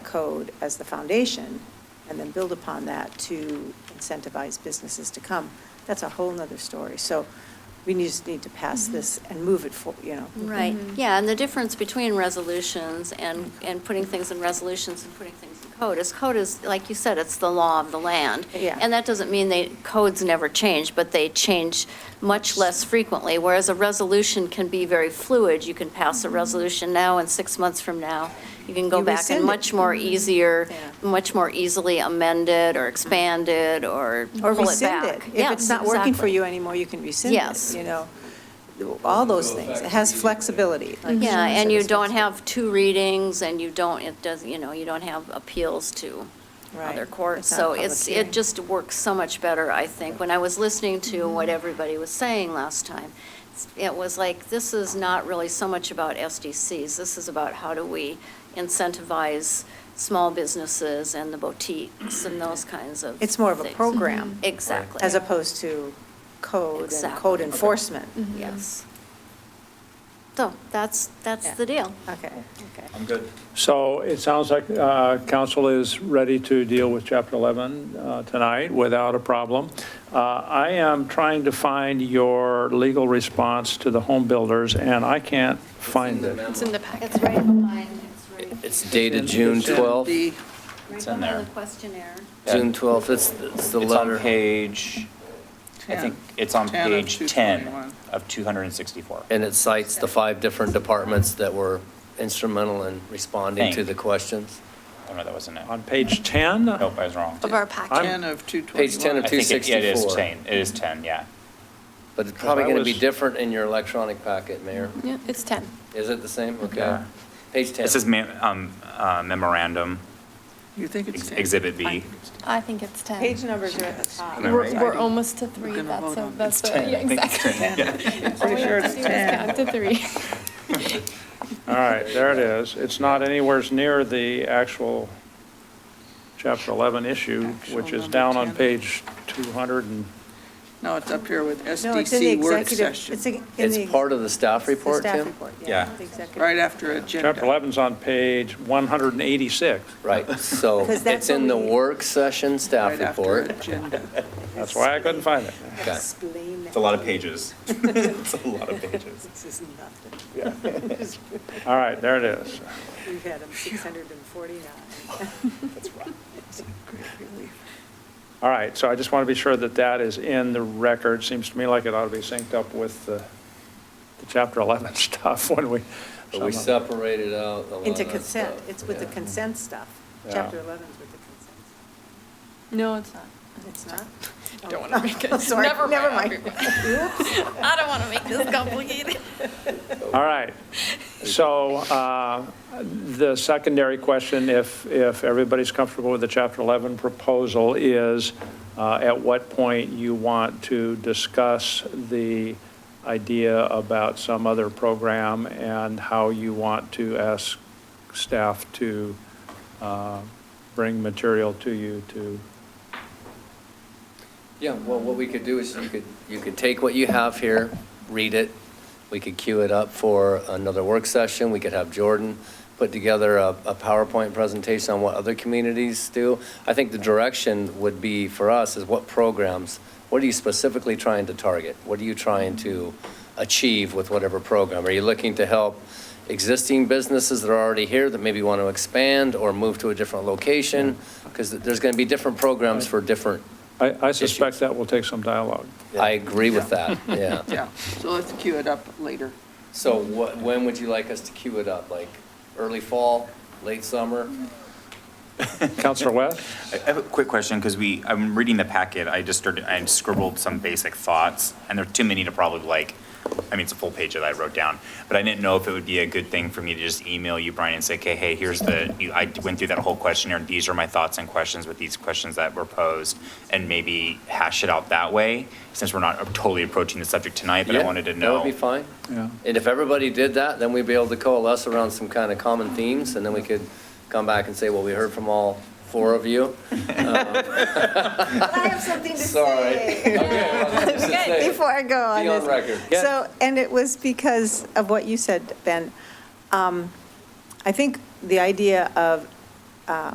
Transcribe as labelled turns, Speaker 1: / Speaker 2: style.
Speaker 1: code as the foundation, and then build upon that to incentivize businesses to come, that's a whole nother story. So we need- just need to pass
Speaker 2: Mhm.
Speaker 1: this and move it for, you know.
Speaker 2: Right,
Speaker 3: Mhm.
Speaker 1: Mm-hmm.
Speaker 2: yeah, and the difference between resolutions and, and putting things in resolutions and putting things in code is code is, like you said, it's the law of the land.
Speaker 1: Yeah.
Speaker 2: And that doesn't mean they, codes never change, but they change much less frequently, whereas a resolution can be very fluid. You can pass a resolution now and six months from now, you can go
Speaker 1: Mm-hmm. You
Speaker 2: back
Speaker 1: rescind it.
Speaker 2: and
Speaker 1: Mm-hmm.
Speaker 2: much more easier,
Speaker 1: Yeah.
Speaker 2: much more easily amended or expanded or
Speaker 1: Or
Speaker 2: pull it
Speaker 1: rescind
Speaker 2: back.
Speaker 1: it. If it's
Speaker 2: Yes,
Speaker 1: not working for
Speaker 2: exactly.
Speaker 1: you anymore, you can rescind it,
Speaker 2: Yes.
Speaker 1: you know? All those things. It has flexibility. like
Speaker 2: Yeah,
Speaker 1: Sharon said,
Speaker 2: and you
Speaker 1: it's
Speaker 2: don't
Speaker 1: flexible.
Speaker 2: have two readings, and you don't, it doesn't, you know, you don't have appeals to other
Speaker 1: Right.
Speaker 2: courts.
Speaker 1: It's not a
Speaker 2: So
Speaker 1: public
Speaker 2: it's,
Speaker 1: hearing.
Speaker 2: it just works so much better, I think. When I was listening to
Speaker 1: Mm-hmm.
Speaker 2: what everybody was saying last time, it was like, this is not really so much about SDCs. This is about how do we incentivize small businesses and the boutiques and those kinds of.
Speaker 1: It's more of a
Speaker 2: things.
Speaker 1: program.
Speaker 2: Mhm. Exactly.
Speaker 1: As opposed to code and
Speaker 2: Exactly.
Speaker 1: code
Speaker 2: Okay. Mm-hmm.
Speaker 1: enforcement.
Speaker 3: Mhm.
Speaker 2: Yes. So that's, that's
Speaker 1: Yeah.
Speaker 2: the deal.
Speaker 1: Okay.
Speaker 2: Okay.
Speaker 4: I'm good.
Speaker 5: So it sounds like uh, council is ready to deal with Chapter 11 uh, tonight without a problem. Uh, I am trying to find your legal response to the home builders, and I can't find it.
Speaker 3: It's in the packet.
Speaker 2: It's right behind, it's right.
Speaker 6: It's dated June 12th,
Speaker 4: The-
Speaker 2: Right
Speaker 4: It's in
Speaker 2: behind
Speaker 4: there.
Speaker 2: the questionnaire.
Speaker 6: June 12th, it's, it's the
Speaker 4: It's on
Speaker 6: letter.
Speaker 4: page, I think it's on
Speaker 7: 10 of
Speaker 4: page 10
Speaker 7: 221.
Speaker 4: of 264.
Speaker 6: And it cites the five different departments that were instrumental in responding to
Speaker 4: Thank
Speaker 6: the
Speaker 4: you.
Speaker 6: questions.
Speaker 4: Oh, no, that wasn't it.
Speaker 5: On page 10?
Speaker 4: Nope, I was wrong.
Speaker 3: Of our packet.
Speaker 7: 10 of 221.
Speaker 6: Page 10 of
Speaker 4: I think it- yeah, It is
Speaker 6: 264.
Speaker 4: 10, it is 10, yeah.
Speaker 6: But it's probably going to be
Speaker 5: was-
Speaker 6: different in your electronic packet, Mayor.
Speaker 3: Yeah, it's 10.
Speaker 6: Is it the same? Okay.
Speaker 4: Yeah.
Speaker 6: Page 10.
Speaker 4: This is mem- um, uh, memorandum,
Speaker 7: You think it's
Speaker 4: ex-
Speaker 7: 10?
Speaker 4: Exhibit B.
Speaker 3: I think it's 10.
Speaker 1: Page numbers are at the top.
Speaker 4: Am I
Speaker 3: We're,
Speaker 4: right?
Speaker 3: we're almost to three.
Speaker 7: gonna
Speaker 3: That's,
Speaker 7: vote
Speaker 3: a-
Speaker 7: on it.
Speaker 3: that's, the- yeah,
Speaker 4: I think it's
Speaker 3: exactly.
Speaker 4: 10, yeah.
Speaker 3: All we
Speaker 7: sure
Speaker 3: have to do
Speaker 7: it's
Speaker 3: is
Speaker 7: 10.
Speaker 3: count to three.
Speaker 5: All right, there it is. It's not anywhere near the actual Chapter 11 issue, which
Speaker 7: Actual
Speaker 5: is
Speaker 7: number
Speaker 5: down on
Speaker 7: 10.
Speaker 5: page 200 and,
Speaker 7: No, it's up here with
Speaker 1: No, it's in the
Speaker 7: SDC work
Speaker 1: executive. It's
Speaker 7: session,
Speaker 1: in the-
Speaker 6: It's part of the staff
Speaker 1: it's the
Speaker 6: report,
Speaker 1: staff
Speaker 6: Tim?
Speaker 1: report,
Speaker 4: Yeah.
Speaker 1: the executive.
Speaker 7: right after agenda.
Speaker 5: Chapter 11's on page 186.
Speaker 6: Right, so
Speaker 1: Because that's
Speaker 6: it's in the
Speaker 1: what we-
Speaker 6: work session staff
Speaker 7: Right after
Speaker 6: report.
Speaker 7: agenda.
Speaker 5: That's why I couldn't find it.
Speaker 6: Okay.
Speaker 1: Explain
Speaker 4: It's a lot of pages. It's a lot of pages.
Speaker 1: This is nothing.
Speaker 5: All right, there it is.
Speaker 1: We've had them 649.
Speaker 5: All right, so I just want to be sure that that is in the record. Seems to me like it ought to be synced up with the, the Chapter 11 stuff when we.
Speaker 6: But we separated out a lot
Speaker 1: Into
Speaker 6: of that
Speaker 1: consent,
Speaker 6: stuff,
Speaker 1: it's with the
Speaker 6: yeah.
Speaker 1: consent stuff.
Speaker 5: Yeah.
Speaker 1: Chapter 11 is with the consent.
Speaker 3: No, it's not.
Speaker 1: It's not? Oh,
Speaker 3: Don't want to make it.
Speaker 1: Sorry, never mind.
Speaker 3: everyone. I don't want to make this complicated.
Speaker 5: All right. So uh, the secondary question, if, if everybody's comfortable with the Chapter 11 proposal, is uh, at what point you want to discuss the idea about some other program and how you want to ask staff to uh, bring material to you to,
Speaker 6: Yeah, well, what we could do is you could, you could take what you have here, read it. We could queue it up for another work session. We could have Jordan put together a, a PowerPoint presentation on what other communities do. I think the direction would be for us is what programs, what are you specifically trying to target? What are you trying to achieve with whatever program? Are you looking to help existing businesses that are already here that maybe want to expand or move to a different location? Because there's going to be different programs for different
Speaker 5: I I suspect that will take some dialogue.
Speaker 6: I agree with that, yeah.
Speaker 7: Yeah, so let's queue it up later.
Speaker 6: So what, when would you like us to queue it up? Like early fall, late summer?
Speaker 5: Counselor West?
Speaker 4: I I have a quick question, because we, I'm reading the packet, I just started, I scribbled some basic thoughts, and there are too many to probably like, I mean, it's a full page that I wrote down, but I didn't know if it would be a good thing for me to just email you, Brian, and say, okay, hey, here's the, you- I went through that whole questionnaire, and these are my thoughts and questions with these questions that were posed, and maybe hash it out that way, since we're not totally approaching the subject tonight, but I
Speaker 6: Yeah,
Speaker 4: wanted to
Speaker 6: That would
Speaker 4: know.
Speaker 6: be fine.
Speaker 5: Yeah.
Speaker 6: And if everybody did that, then we'd be able to coalesce around some kind of common themes, and then we could come back and say, well, we heard from all four of you.
Speaker 1: I have something to
Speaker 6: Sorry.
Speaker 1: say.
Speaker 6: Good.
Speaker 1: Before I go on
Speaker 6: Be on
Speaker 1: this.
Speaker 6: record.
Speaker 1: So, and it was because of what you said, Ben. Um, I think the idea of uh,